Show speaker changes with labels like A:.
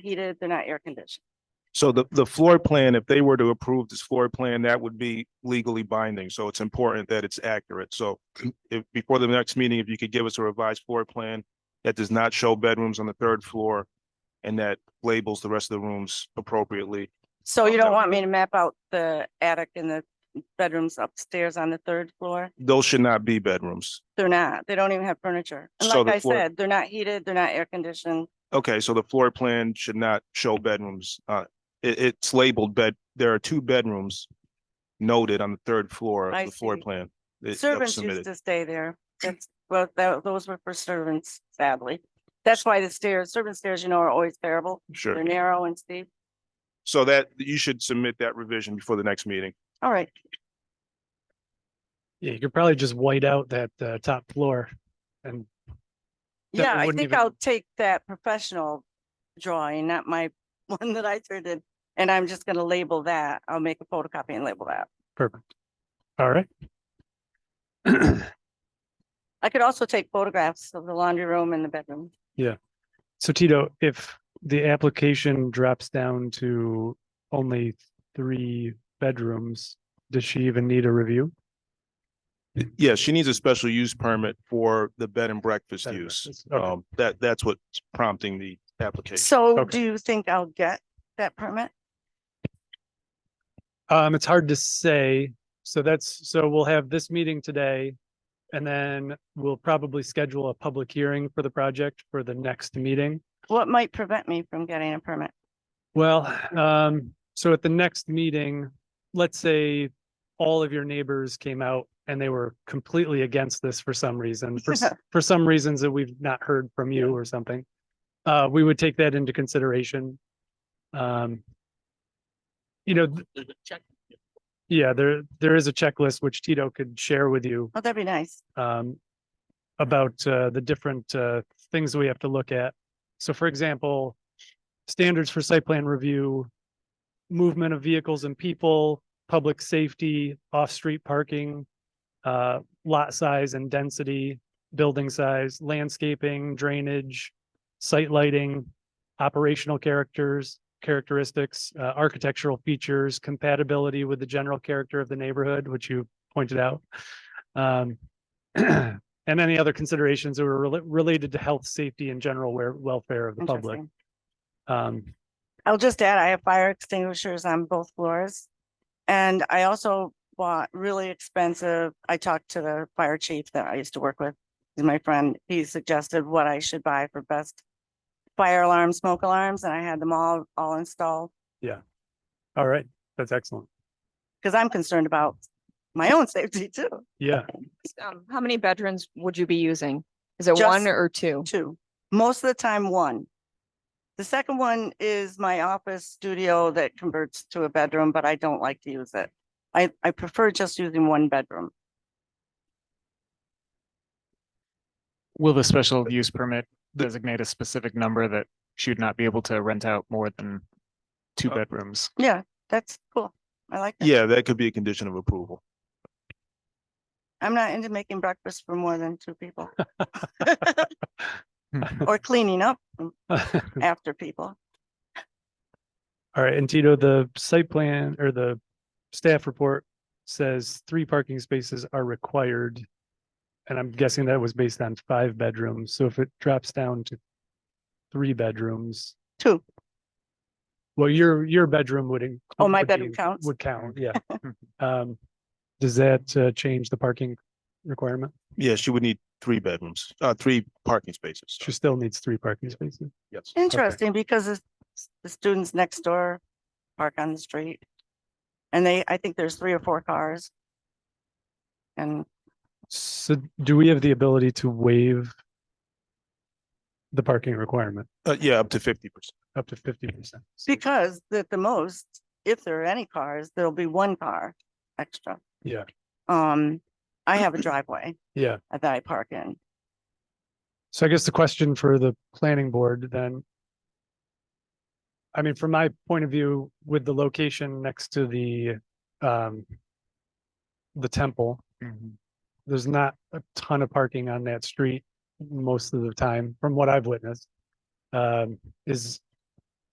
A: heated, they're not air conditioned.
B: So the, the floor plan, if they were to approve this floor plan, that would be legally binding. So it's important that it's accurate. So if, before the next meeting, if you could give us a revised floor plan that does not show bedrooms on the third floor and that labels the rest of the rooms appropriately.
A: So you don't
B: Okay.
A: want me to map out the attic and the bedrooms upstairs on the third floor?
B: Those should not be bedrooms.
A: They're not, they don't even have furniture. And
B: So
A: like
B: the
A: I
B: floor-
A: said, they're not heated, they're not air conditioned.
B: Okay, so the floor plan should not show bedrooms. Uh, it, it's labeled bed, there are two bedrooms noted on the third floor
A: I
B: of the floor
A: see.
B: plan. that- that was
A: Servants
B: submitted.
A: used to stay there. That's, well, tho- those were for servants, sadly. That's why the stairs, servant stairs, you know, are always terrible.
B: Sure.
A: They're narrow and steep.
B: So that, you should submit that revision before the next meeting.
A: All right,
C: Yeah, you could probably just white out that uh, top floor and That
A: yeah,
C: it
A: I
C: wouldn't
A: think
C: even-
A: I'll take that professional drawing, not my one that I turned in. And I'm just gonna label that. I'll make a photocopy and label that.
C: perfect. All right.
A: I could also take photographs of the laundry room and the bedroom.
C: So Tito, if the application drops down to only three bedrooms, does she even need a review?
B: Yeah, she needs a special use permit for the bed and breakfast
C: Bed and
B: use.
C: breakfast, okay.
B: Um, that, that's what's prompting the application.
A: So
C: Okay.
A: do you think I'll get that permit?
C: Um, it's hard to say. So that's, so we'll have this meeting today. And then we'll probably schedule a public hearing for the project for the next meeting.
A: What might prevent me from getting a permit?
C: Well, um, so at the next meeting, let's say all of your neighbors came out and they were completely against this for some reason, for, s- for some reasons that we've not heard from you or something. Uh, we would take that into consideration. Um, you know, th- yeah, there, there is a checklist which Tito could share with you,
A: Oh, that'd be nice.
C: um, about, uh, the different, uh, things we have to look at. So for example, standards for site plan review, movement of vehicles and people, public safety, off-street parking, uh, lot size and density, building size, landscaping, drainage, site lighting, operational characters, characteristics, uh, architectural features, compatibility with the general character of the neighborhood, which you pointed out. Um, and any other considerations that were rela- related to health, safety, and general ware- welfare of the public.
A: Interesting.
C: Um,
A: I'll just add, I have fire extinguishers on both floors. And I also bought really expensive, I talked to the fire chief that I used to work with. He's my friend. He suggested what I should buy for best fire alarm, smoke alarms, and I had them all, all installed.
C: all right, that's excellent.
A: Cause I'm concerned about my own safety too,
C: Yeah,
D: Um, how many bedrooms would you be using? Is it one
A: Just
D: or two?
A: too. Most of the time, one. The second one is my office studio that converts to a bedroom, but I don't like to use it. I, I prefer just using one bedroom.
E: Will the special use permit designate a specific number that she would not be able to rent out more than two
B: Uh,
E: bedrooms?
A: Yeah, that's cool. I like that.
B: Yeah, that could be a condition of approval.
A: I'm not into making breakfast for more than two people. Or cleaning up
C: all
A: after people.
C: right, and Tito, the site plan or the staff report says three parking spaces are required. And I'm guessing that was based on five bedrooms, so if it drops down to three bedrooms,
A: Two.
C: well, your, your bedroom would. in-
A: Oh, my
C: would
A: bedroom
C: be-
A: counts?
C: Would count, yeah. Um, does that uh, change the parking requirement?
B: Yeah, she would need three bedrooms, uh, three parking spaces.
C: She still needs three parking spaces.
B: Yes.
A: Interesting because the s- the students next door park on the street. And they, I think there's three or four cars. And
C: So do we have the ability to waive the parking requirement
B: Uh, yeah, up to fifty percent.
C: up to fifty percent?
A: because at the most, if there are any cars, there'll be one car extra.
C: Yeah.
A: Um, I have a driveway
C: Yeah,
A: that I park in.
C: so I guess the question for the planning board then. I mean, from my point of view, with the location next to the um. The temple, there's not a ton of parking on that street most of the time, from what I've witnessed. Um, is